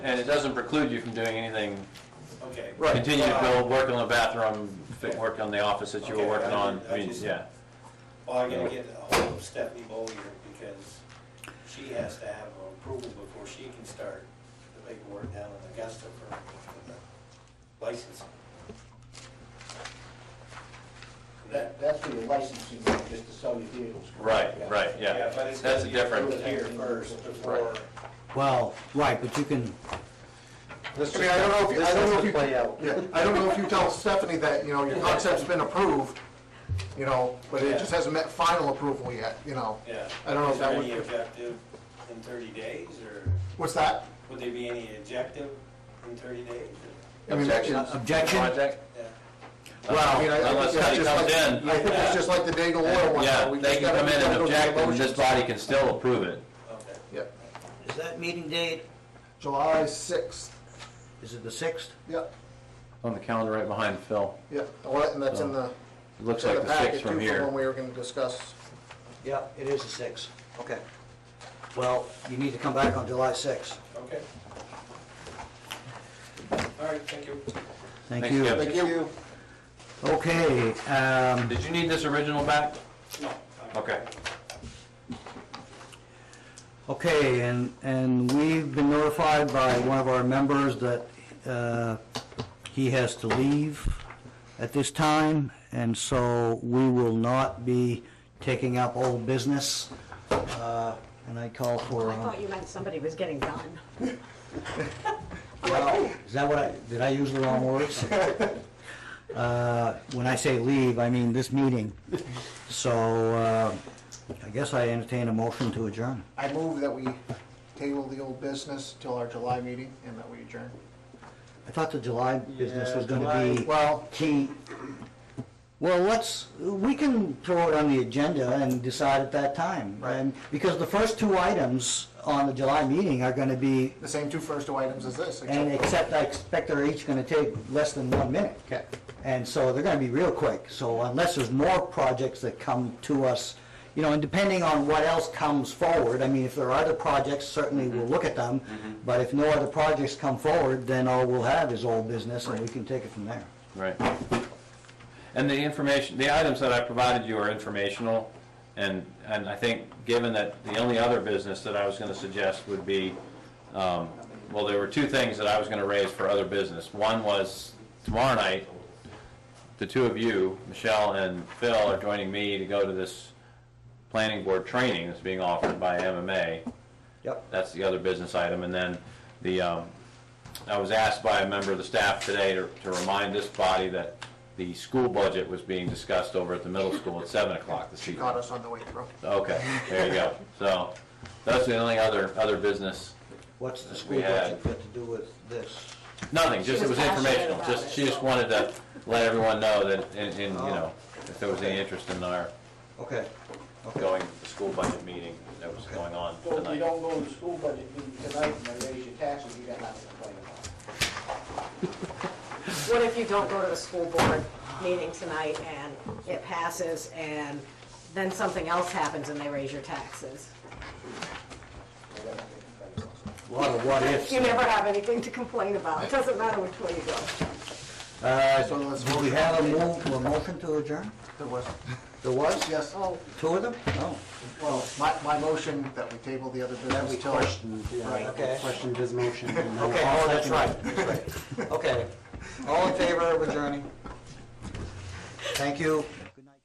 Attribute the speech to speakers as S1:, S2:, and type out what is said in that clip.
S1: And it doesn't preclude you from doing anything,
S2: Okay.
S3: Right.
S1: continue to
S2: Uh,
S1: build, work on the bathroom, fi- work on the office that you were
S2: Okay,
S1: working
S2: I
S1: on,
S2: did- I
S1: I mean,
S2: just-
S1: yeah.
S2: Well, I gotta get a hold of Stephanie Bollier because she has to have approval before she can start the paperwork down in Augusta for for the licensing. That,
S3: That, that's for your licensing, not just to sell your vehicles.
S1: Right, right,
S2: yeah, but
S1: yeah.
S2: it's
S1: That's
S2: gotta
S1: a
S2: be approved
S1: different,
S2: here first before,
S4: Well, Oh, right, but you can,
S3: I mean, I don't know if, you- I don't know if you. Play out.
S5: Yeah, I don't know if you tell Stephanie that, you know, your concept's been approved, you know, but it just hasn't met final approval yet, you know.
S2: yeah.
S5: I don't know if that
S2: Is there any
S5: would,
S2: objective in thirty days or
S5: what's that?
S2: would there be any objective in thirty days?
S5: I mean, that is-
S4: Objection?
S1: Project?
S2: or- Yeah.
S5: I mean, I- I
S1: Well,
S5: think
S1: unless
S5: that's
S1: somebody
S5: just
S1: comes
S5: like-
S1: in,
S5: I think it's just like the Daigle Oil one.
S1: yeah,
S5: though. We
S1: they
S5: just
S1: can
S5: gotta-
S1: come
S5: we
S1: in
S5: gotta
S1: and
S5: go through the
S1: object, and
S5: motions.
S1: this body can still approve it.
S2: Okay.
S5: Yeah,
S4: is that meeting date,
S5: July sixth,
S4: is it the 6th?
S5: yeah,
S1: On the calendar right behind Phil.
S5: yeah, Well, and that's in the,
S1: It looks
S5: it's in
S1: like
S5: the
S1: the six
S5: packet too,
S1: from
S5: from when
S1: here.
S5: we were gonna discuss.
S4: Yeah, it is the 6th. Okay. Well, you need to come back on July 6th.
S2: Okay. All right, thank you.
S1: Thanks, Kevin.
S5: Thank you.
S4: Okay, um,
S1: Did you need this original back?
S2: No.
S1: Okay.
S4: okay, and, and we've been notified by one of our members that uh, he has to leave at this time, and so we will not be taking up old business. Uh, And I call for,
S6: I
S4: uh,
S6: thought you meant somebody was getting done.
S4: well, is that what I, did I use the wrong words? Uh, When I say leave, I mean this meeting. So uh, I guess I entertain a motion to adjourn.
S5: I move that we table the old business till our July meeting and that we adjourn.
S4: I thought the July business was going to be
S5: Well,
S4: key. Well, let's, we can throw it on the agenda and decide at that time.
S5: Right.
S4: And- Because the first two items on the July meeting are going to be,
S5: the same two first two items as this,
S4: and except
S5: except,
S4: I expect they're each going to take less than one minute.
S5: okay,
S4: And so they're going to be real quick. So unless there's more projects that come to us, you know, and depending on what else comes forward, I mean, if there are other projects, certainly we'll look at them. But if no other projects come forward, then all we'll have is old business and we can take it from there.
S1: Right. And the information, the items that I provided you are informational, and, and I think, given that the only other business that I was gonna suggest would be, um, well, there were two things that I was gonna raise for other business. One was tomorrow night, the two of you, Michelle and Phil, are joining me to go to this planning board training that's being offered by MMA.
S4: Yep.
S1: That's the other business item, and then the, um, I was asked by a member of the staff today to to remind this body that the school budget was being discussed over at the middle school at seven o'clock this
S5: caught
S1: evening.
S5: us on the way through.
S1: Okay, there you go. So, that's the only other, other business.
S4: What's the
S1: We
S4: school
S1: had-
S4: budget got to do with this?
S1: Nothing, just it was
S6: was passionate
S1: informational,
S6: about
S1: just,
S6: it. Oh.
S1: she just wanted to let everyone know that, in, in, you know, if there was any interest in our
S4: Okay, okay.
S1: going, the school budget meeting that was going on
S3: so if you
S1: tonight.
S3: don't go to the school budget meeting tonight and they raise your taxes, you got nothing to complain about.
S6: What if you don't go to the school board meeting tonight and it passes and then something else happens and they raise your taxes?
S3: You got nothing to complain about.
S4: A lot of what ifs.
S6: You never have anything to complain about. It doesn't matter which way you go.
S4: Uh,
S5: So let's
S4: Do we
S5: motion.
S4: have a move, a motion to adjourn?
S5: There was,
S4: There was?
S5: Yes,
S6: Oh,
S4: Two of them? Oh,
S5: well, my, my motion that we table the other business till.
S4: right, okay.
S7: questioned his motion. and then
S4: Okay,
S7: I'll
S4: oh, that's
S7: second it.
S4: right, that's right. Okay. All in favor of adjourning? Thank you.